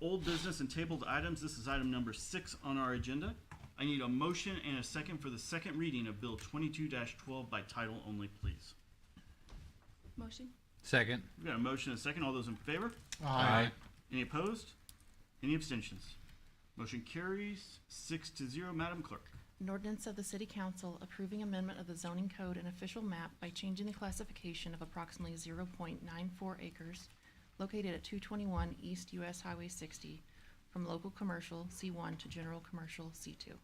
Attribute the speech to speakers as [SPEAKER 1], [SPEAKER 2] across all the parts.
[SPEAKER 1] old business and tabled items. This is item number six on our agenda. I need a motion and a second for the second reading of Bill twenty-two twelve by title only, please.
[SPEAKER 2] Motion?
[SPEAKER 3] Second.
[SPEAKER 1] We've got a motion and a second. All those in favor? Any opposed? Any abstentions? Motion carries six to zero. Madam Clerk.
[SPEAKER 4] An ordinance of the City Council approving amendment of the zoning code and official map by changing the classification of approximately zero point nine four acres located at two twenty-one East US Highway sixty from local commercial C one to general commercial C two.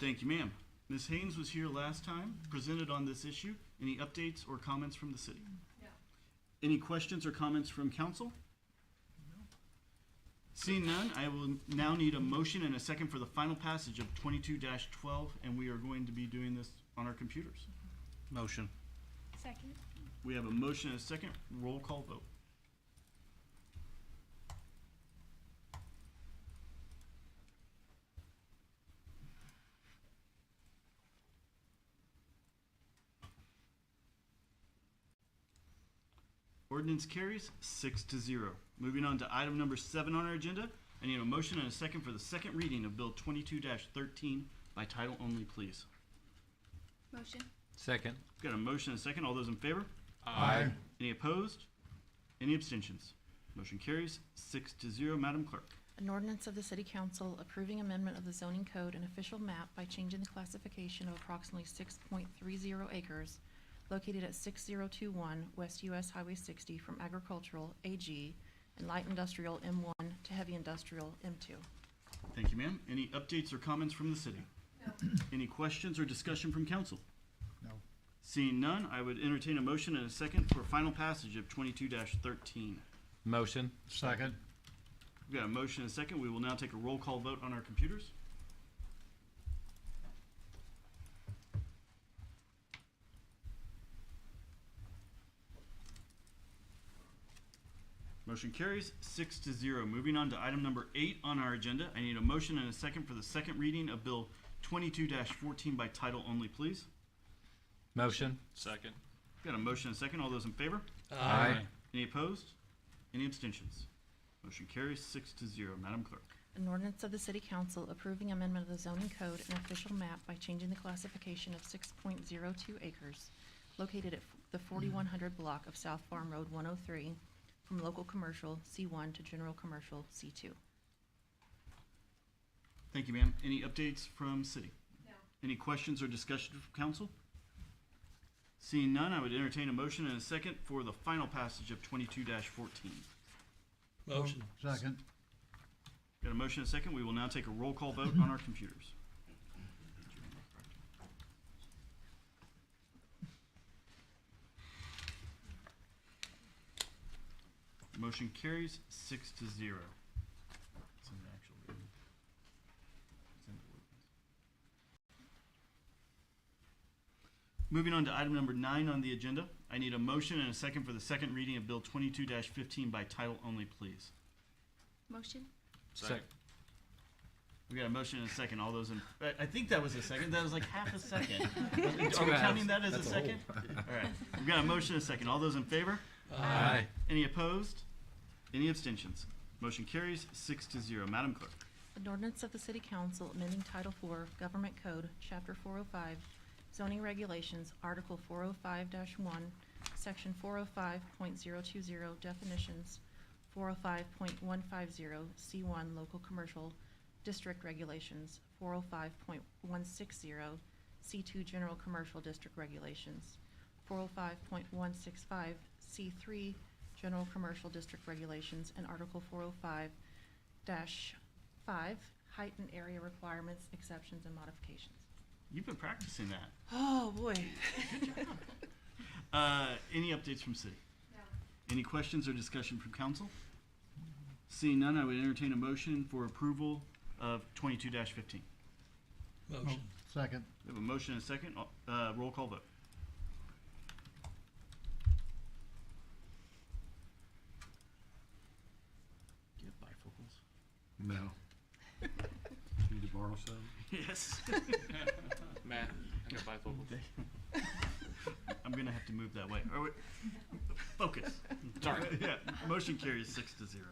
[SPEAKER 1] Thank you, ma'am. Ms. Haynes was here last time, presented on this issue. Any updates or comments from the city? No. Any questions or comments from council? Seeing none, I will now need a motion and a second for the final passage of twenty-two twelve, and we are going to be doing this on our computers.
[SPEAKER 3] Motion.
[SPEAKER 2] Second?
[SPEAKER 1] We have a motion and a second. Roll call vote. Ordinance carries six to zero. Moving on to item number seven on our agenda, I need a motion and a second for the second reading of Bill twenty-two thirteen by title only, please.
[SPEAKER 2] Motion?
[SPEAKER 3] Second.
[SPEAKER 1] Got a motion and a second. All those in favor?
[SPEAKER 3] Aye.
[SPEAKER 1] Any opposed? Any abstentions? Motion carries six to zero. Madam Clerk.
[SPEAKER 4] An ordinance of the City Council approving amendment of the zoning code and official map by changing the classification of approximately six point three zero acres located at six zero two one West US Highway sixty from agricultural AG and light industrial M one to heavy industrial M two.
[SPEAKER 1] Thank you, ma'am. Any updates or comments from the city? Any questions or discussion from council?
[SPEAKER 5] No.
[SPEAKER 1] Seeing none, I would entertain a motion and a second for final passage of twenty-two thirteen.
[SPEAKER 3] Motion.
[SPEAKER 5] Second.
[SPEAKER 1] We've got a motion and a second. We will now take a roll call vote on our computers. Motion carries six to zero. Moving on to item number eight on our agenda, I need a motion and a second for the second reading of Bill twenty-two fourteen by title only, please.
[SPEAKER 3] Motion.
[SPEAKER 6] Second.
[SPEAKER 1] Got a motion and a second. All those in favor? Any opposed? Any abstentions? Motion carries six to zero. Madam Clerk.
[SPEAKER 4] An ordinance of the City Council approving amendment of the zoning code and official map by changing the classification of six point zero two acres located at f- the forty-one hundred block of South Farm Road one oh three from local commercial C one to general commercial C two.
[SPEAKER 1] Thank you, ma'am. Any updates from city? No. Any questions or discussion from council? Seeing none, I would entertain a motion and a second for the final passage of twenty-two fourteen.
[SPEAKER 6] Motion.
[SPEAKER 5] Second.
[SPEAKER 1] Got a motion and a second. We will now take a roll call vote on our computers. Motion carries six to zero. It's in the actual reading. It's in the ordinance. Moving on to item number nine on the agenda, I need a motion and a second for the second reading of Bill twenty-two fifteen by title only, please.
[SPEAKER 2] Motion?
[SPEAKER 3] Second.
[SPEAKER 1] We got a motion and a second. All those in, I- I think that was a second. That was like half a second. Are we
[SPEAKER 3] fast.
[SPEAKER 1] counting that as a second? All right. We've got a motion and a second. All those in favor?
[SPEAKER 3] Aye.
[SPEAKER 1] Any opposed? Any abstentions? Motion carries six to zero. Madam Clerk.
[SPEAKER 4] An ordinance of the City Council amending Title IV Government Code, Chapter 405, zoning regulations, Article 405-1, Section 405.020 definitions, 405.150 C1 local commercial district regulations, 405.160 C2 general commercial district regulations, 405.165 C3 general commercial district regulations, and Article 405 dash five, height and area requirements, exceptions, and modifications.
[SPEAKER 1] You've been practicing that.
[SPEAKER 4] Oh, boy.
[SPEAKER 1] Uh, any updates from city? Any questions or discussion from council? Seeing none, I would entertain a motion for approval of twenty-two fifteen.
[SPEAKER 6] Motion.
[SPEAKER 5] Second.
[SPEAKER 1] We have a motion and a second. Uh, roll call vote. Do you have bifocals?
[SPEAKER 5] No. Need to borrow some?
[SPEAKER 1] Yes.
[SPEAKER 6] Matt, I got bifocal.
[SPEAKER 1] I'm gonna have to move that way. Are we- Focus.
[SPEAKER 6] Sorry.
[SPEAKER 1] Yeah, motion carries six to zero.